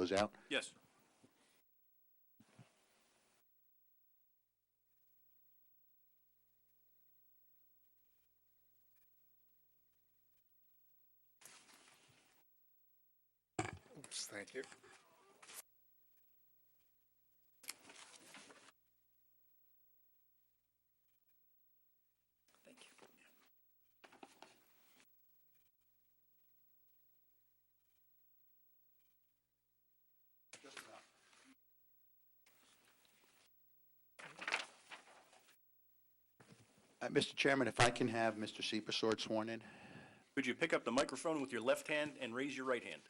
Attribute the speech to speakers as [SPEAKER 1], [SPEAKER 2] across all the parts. [SPEAKER 1] those out?
[SPEAKER 2] Yes.
[SPEAKER 3] Oops, thank you.
[SPEAKER 4] Thank you.
[SPEAKER 1] Uh, Mr. Chairman, if I can have Mr. Seepersod sworn in?
[SPEAKER 2] Could you pick up the microphone with your left hand and raise your right hand?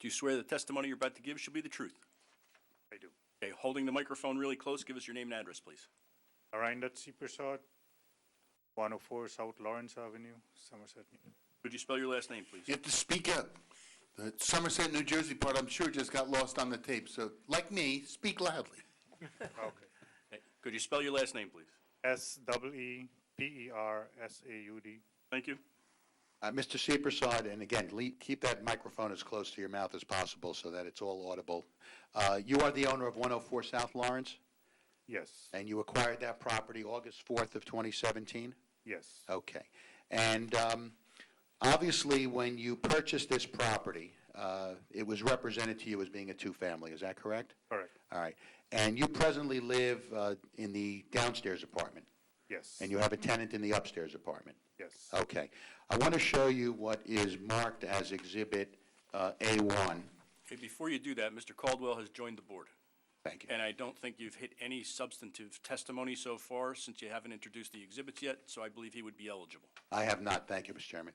[SPEAKER 2] Do you swear the testimony you're about to give shall be the truth?
[SPEAKER 3] I do.
[SPEAKER 2] Okay, holding the microphone really close, give us your name and address, please.
[SPEAKER 3] Narayanan C. Prasad, 104 South Lawrence Avenue, Somerset.
[SPEAKER 2] Could you spell your last name,
[SPEAKER 5] You
[SPEAKER 2] please?
[SPEAKER 5] have to speak up. The Somerset, New Jersey part, I'm sure just got lost on the tape, so like me, speak loudly.
[SPEAKER 3] Okay.
[SPEAKER 2] Okay, Could you spell your last name, please?
[SPEAKER 3] S double E P E R S A U D.
[SPEAKER 2] Thank you.
[SPEAKER 1] Uh, Mr. Seepersod, and again, le- keep that microphone as close to your mouth as possible so that it's all audible. Uh, You are the owner of 104 South Lawrence,
[SPEAKER 3] Yes,
[SPEAKER 1] and you acquired that property August 4th of 2017?
[SPEAKER 3] yes,
[SPEAKER 1] Okay. And um, obviously, when you purchased this property, uh, it was represented to you as being a two-family, is that correct?
[SPEAKER 3] correct,
[SPEAKER 1] All right. And you presently live uh, in the downstairs apartment,
[SPEAKER 3] yes,
[SPEAKER 1] and you Oh. have a tenant in the upstairs apartment?
[SPEAKER 3] yes,
[SPEAKER 1] Okay. I want to show you what is marked as Exhibit uh, A1.
[SPEAKER 2] Okay, before you do that, Mr. Caldwell has joined the board,
[SPEAKER 1] Thank you.
[SPEAKER 2] and I don't think you've hit any substantive testimony so far, since you haven't introduced the exhibits yet, so I believe he would be eligible.
[SPEAKER 1] I have not, thank you, Mr. Chairman.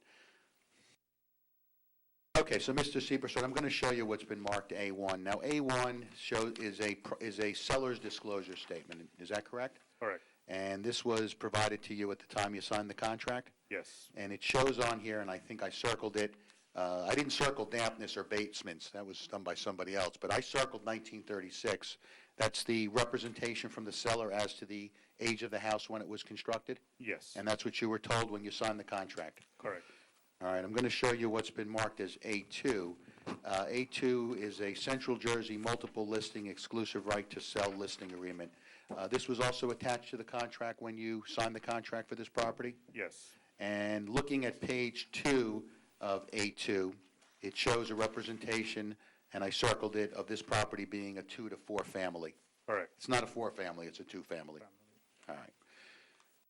[SPEAKER 1] Okay, so Mr. Seepersod, I'm going to show you what's been marked A1. Now, A1 show, is a, pro- is a seller's disclosure statement, is that correct?
[SPEAKER 3] correct,
[SPEAKER 1] And this was provided to you at the time you signed the contract?
[SPEAKER 3] yes,
[SPEAKER 1] And it shows on here, and I think I circled it, uh, I didn't circle dampness or basements, that was done by somebody else, but I circled 1936. That's the representation from the seller as to the age of the house when it was constructed?
[SPEAKER 3] yes,
[SPEAKER 1] And that's what you were told when you signed the contract?
[SPEAKER 3] correct,
[SPEAKER 1] All right, I'm going to show you what's been marked as A2. Uh, A2 is a Central Jersey multiple listing exclusive right to sell listing agreement. Uh, This was also attached to the contract when you signed the contract for this property?
[SPEAKER 3] yes,
[SPEAKER 1] And looking at page two of A2, it shows a representation, and I circled it, of this property being a two to four family.
[SPEAKER 3] correct,
[SPEAKER 1] It's not a four-family, it's a two-family. All right.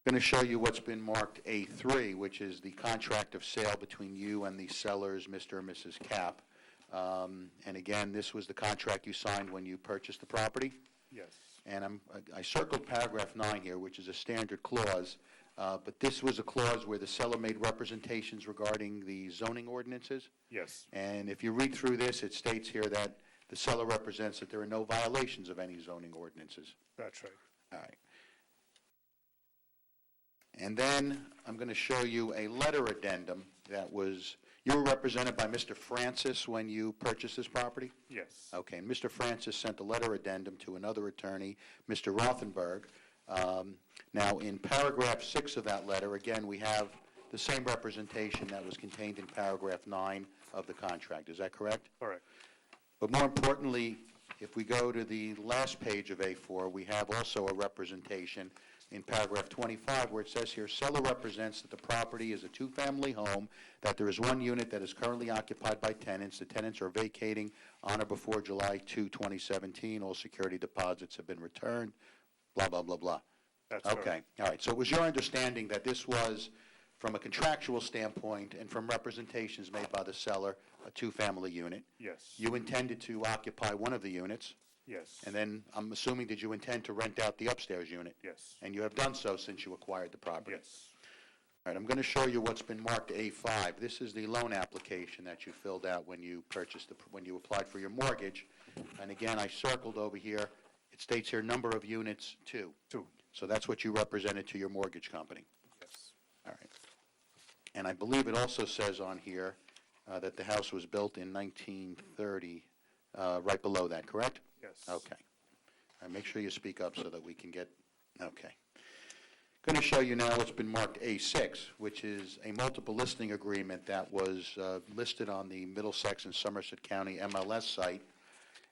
[SPEAKER 1] Going to show you what's been marked A3, which is the contract of sale between you and the sellers, Mr. and Mrs. Cap. Um, And again, this was the contract you signed when you purchased the property?
[SPEAKER 3] yes,
[SPEAKER 1] And I'm, I- I circled paragraph nine here, which is a standard clause, uh, but this was a clause where the seller made representations regarding the zoning ordinances.
[SPEAKER 3] yes,
[SPEAKER 1] And if you read through this, it states here that the seller represents that there are no violations of any zoning ordinances.
[SPEAKER 3] that's right,
[SPEAKER 1] All right. And then I'm going to show you a letter addendum that was, you were represented by Mr. Francis when you purchased this property?
[SPEAKER 3] yes,
[SPEAKER 1] Okay, and Mr. Francis sent a letter addendum to another attorney, Mr. Rothenberg. Um, Now, in paragraph six of that letter, again, we have the same representation that was contained in paragraph nine of the contract, is that correct?
[SPEAKER 3] correct,
[SPEAKER 1] But more importantly, if we go to the last page of A4, we have also a representation in paragraph 25 where it says here, seller represents that the property is a two-family home, that there is one unit that is currently occupied by tenants, the tenants are vacating on or before July 2, 2017, all security deposits have been returned, blah, blah, blah, blah.
[SPEAKER 3] that's
[SPEAKER 1] Okay,
[SPEAKER 3] correct,
[SPEAKER 1] all right, so it was your understanding that this was, from a contractual standpoint and from representations made by the seller, a two-family unit?
[SPEAKER 3] yes,
[SPEAKER 1] You intended to occupy one of the units,
[SPEAKER 3] yes,
[SPEAKER 1] and then I'm assuming did you intend to rent out the upstairs unit?
[SPEAKER 3] yes,
[SPEAKER 1] And you have done so since you acquired the property?
[SPEAKER 3] yes,
[SPEAKER 1] All right, I'm going to show you what's been marked A5. This is the loan application that you filled out when you purchased, the when you applied for your mortgage. And again, I circled over here, it states here, number of units, two.
[SPEAKER 3] two,
[SPEAKER 1] So that's what you represented to your mortgage company.
[SPEAKER 3] yes,
[SPEAKER 1] All right. And I believe it also says on here uh, that the house was built in 1930, uh, right below that, correct?
[SPEAKER 3] yes.
[SPEAKER 1] Okay. All right, make sure you speak up so that we can get, okay. Going to show you now what's been marked A6, which is a multiple listing agreement that was uh, listed on the Middlesex and Somerset County MLS site